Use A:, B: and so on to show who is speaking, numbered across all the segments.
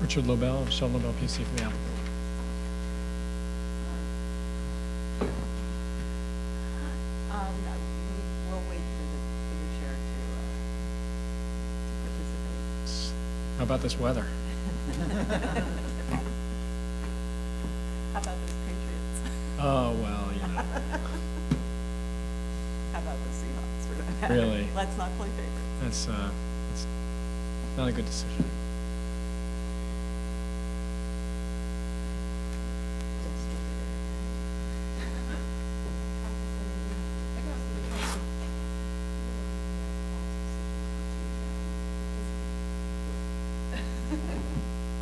A: Richard Lobel, Shell Lobel PC for the applicant.
B: Um, no, we- we'll wait for the, for the chair to, uh, to participate.
A: How about this weather?
B: How about those Patriots?
A: Oh, well, you know,
B: How about the Seahawks? For that matter?
A: Really?
B: Let's not play favorites.
A: that's, uh, it's not a good decision.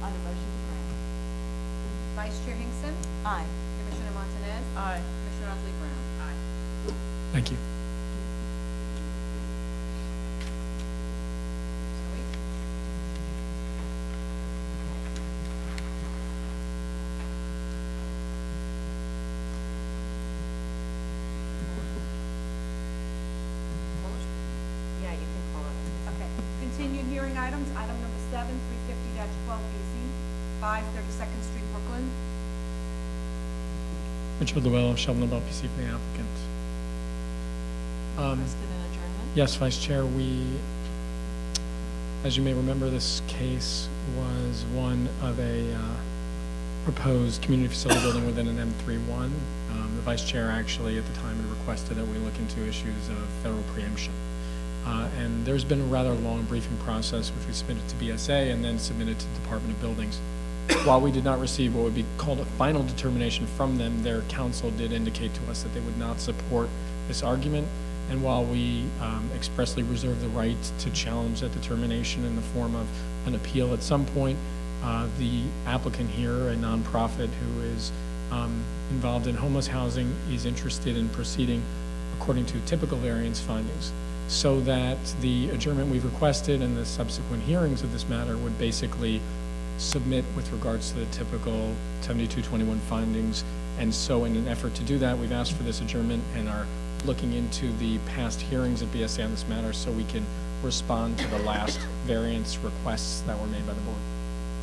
B: On the motion to grant.
C: Vice Chair Hinkson,
B: Aye.
C: Commissioner Montanez,
B: Aye.
C: Commissioner Otley Brown. Aye.
A: Thank you.
C: Yeah, you can call it.
D: Okay, continued hearing items, item number seven, three fifty twelve BZ, five thirty-second Street, Brooklyn.
A: Richard Lobel, Shell Lobel PC for the applicant. Um,
B: Requested an adjournment?
A: Yes, Vice Chair, we, as you may remember, this case was one of a uh, proposed community facility building within an M31. Um, The Vice Chair actually at the time had requested that we look into issues of federal preemption. Uh, And there's been a rather long briefing process, which we submitted to BSA and then submitted to Department of Buildings. While we did not receive what would be called a final determination from them, their counsel did indicate to us that they would not support this argument. And while we um, expressly reserve the right to challenge that determination in the form of an appeal at some point, uh, the applicant here, a nonprofit who is um, involved in homeless housing, is interested in proceeding according to typical variance findings, so that the adjournment we've requested and the subsequent hearings of this matter would basically submit with regards to the typical 7221 findings. And so in an effort to do that, we've asked for this adjournment and are looking into the past hearings at BSA on this matter so we can respond to the last variance requests that were made by the board.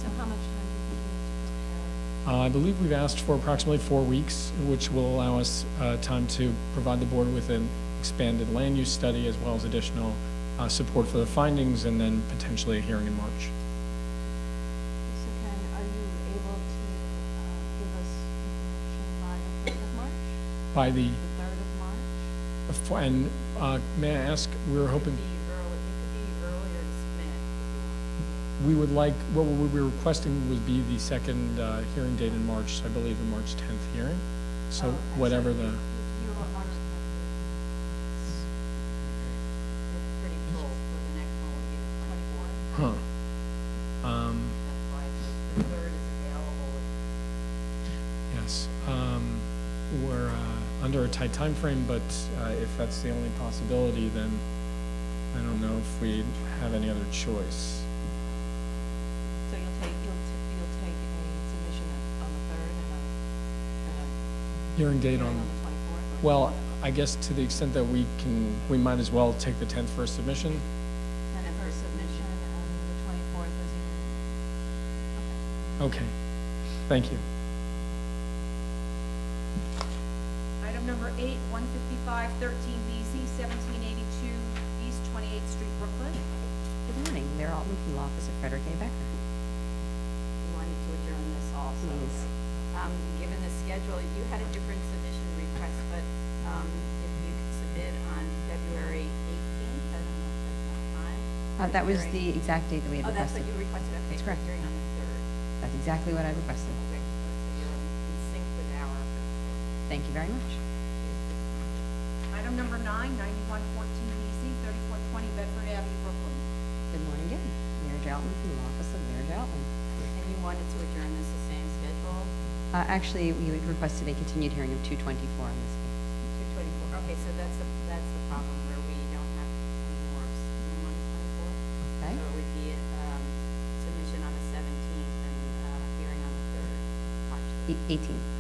B: So how much time do you think we
A: Uh, I believe we've asked for approximately four weeks, which will allow us uh, time to provide the board with an expanded land use study as well as additional uh, support for the findings and then potentially a hearing in March.
B: need to prepare? So Karen, are you able to, uh, give us information by the third of March?
A: By
B: The
A: the,
B: third of March?
A: and uh, may I ask, we were hoping,
C: early, it could be earlier to submit.
A: we would like, what we were requesting would be the second uh, hearing date in March, I believe the March 10th hearing. So whatever the,
C: Oh, You want March It's pretty full for the next one, would be the twenty-fourth.
A: huh. Um,
C: That's why the third is available.
A: Yes, um, we're, uh, under a tight time frame, but, uh, if that's the only possibility, then I don't know if we have any other
B: So
A: choice.
B: you'll take, you'll, t- you'll take a submission on- on the third and a, and a
A: Hearing date
B: hearing on
A: on,
B: the twenty-fourth?
A: well, I guess to the extent that we can, we might as well take the tenth for a submission.
C: And then her submission.
B: And the twenty-fourth is
A: Okay, thank you.
D: Item number eight, one fifty-five thirteen BZ, seventeen eighty-two East Twenty-Eighth Street, Brooklyn.
E: Good morning, Mayor Altman from the Office of Frederick A. Becker.
C: We wanted to adjourn this also.
E: Please.
C: Um, given the schedule, you had a different submission request, but, um, if you could submit on February eighteenth, I don't know if that's enough time.
E: Uh, That was
C: Hearing.
E: the, exactly the way
C: Oh,
E: it
C: that's what
E: requested.
C: you requested, okay.
E: That's correct.
C: Hearing on the third,
E: That's exactly what I requested.
C: okay, so you're in sync with our.
E: Thank you very much.
D: Item number nine, ninety-one fourteen BZ, thirty-four twenty Bedford Avenue, Brooklyn.
E: Good morning again, Mayor J. Altman from the Office of Mayor J. Altman.
C: And you wanted to adjourn this the same schedule,
E: Uh, Actually, we had requested a continued hearing of 224 on this.
C: two twenty-four, okay, so that's the, that's the problem where we don't have any more, of s- no one twenty-four.
E: Okay.
C: So it would be, um, submission on the seventeenth and, uh, hearing on the third, March.
E: E- 18.